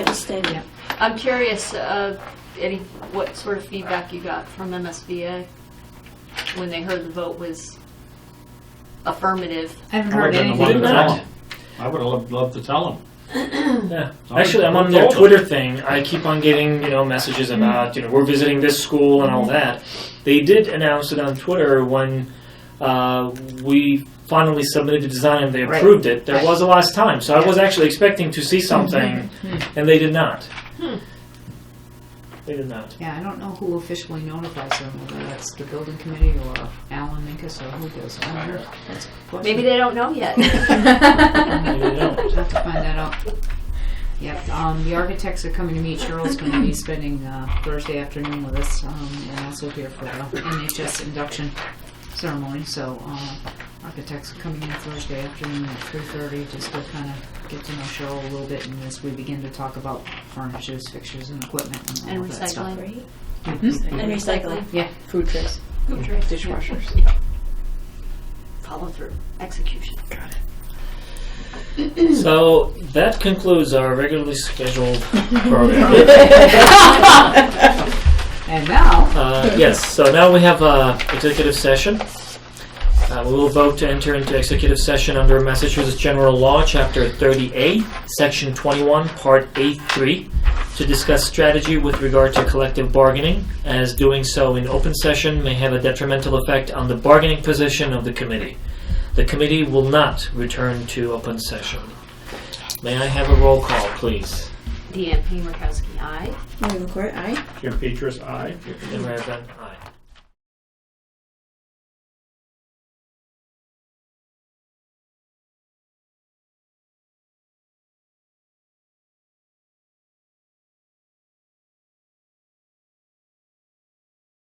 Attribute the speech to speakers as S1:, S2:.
S1: in yet. I'm curious, uh, any, what sort of feedback you got from MSBA when they heard the vote was affirmative?
S2: I haven't
S3: I
S2: heard
S3: would've been the
S2: anything.
S3: one to
S2: about
S3: tell
S2: it.
S3: them. I would've loved, loved to tell them.
S4: Yeah.
S3: So I
S4: Actually, I'm on
S3: told
S4: their
S3: them.
S4: Twitter thing. I keep on getting you know messages about you know we're visiting this school and all that. They did announce it on Twitter when uh, we finally submitted the design and they
S2: Right.
S4: approved it. There
S2: Right.
S4: was a last time, so I was actually expecting to see something, and they did not.
S1: Hmm.
S4: They did not.
S2: Yeah, I don't know who officially notifies them, whether that's the building committee or Alan Minkus or who does. I don't know. That's a question.
S1: Maybe they don't know yet.
S4: Maybe they don't.
S2: We'll have to find that out. Yep, um, the architects are coming to meet. Cheryl's gonna be spending, uh, Thursday afternoon with us, um, and also here for the NHS induction ceremony, so, uh, architects are coming in Thursday afternoon at three thirty, just to kinda get to know Cheryl a little bit, and as we begin to talk about furnitures, fixtures, and equipment, and
S1: And
S2: all that stuff.
S1: recycling.
S2: Mhm.
S5: And recycling.
S2: Yeah.
S5: Food trucks.
S1: Food trucks.
S5: Dishwashers.
S1: Follow through, execution.
S4: So that concludes our regularly scheduled program.
S2: And now,
S4: Uh, yes, so now we have uh, executive session. Uh, we will vote to enter into executive session under Massachusetts General Law, Chapter 30A, Section 21, Part A3, to discuss strategy with regard to collective bargaining, as doing so in open session may have a detrimental effect on the bargaining position of the committee. The committee will not return to open session. May I have a roll call, please?
S1: Deanne P. Murkowski, aye.
S5: Moving court, aye.
S3: Jim Petrus, aye.
S4: Member Evans, aye.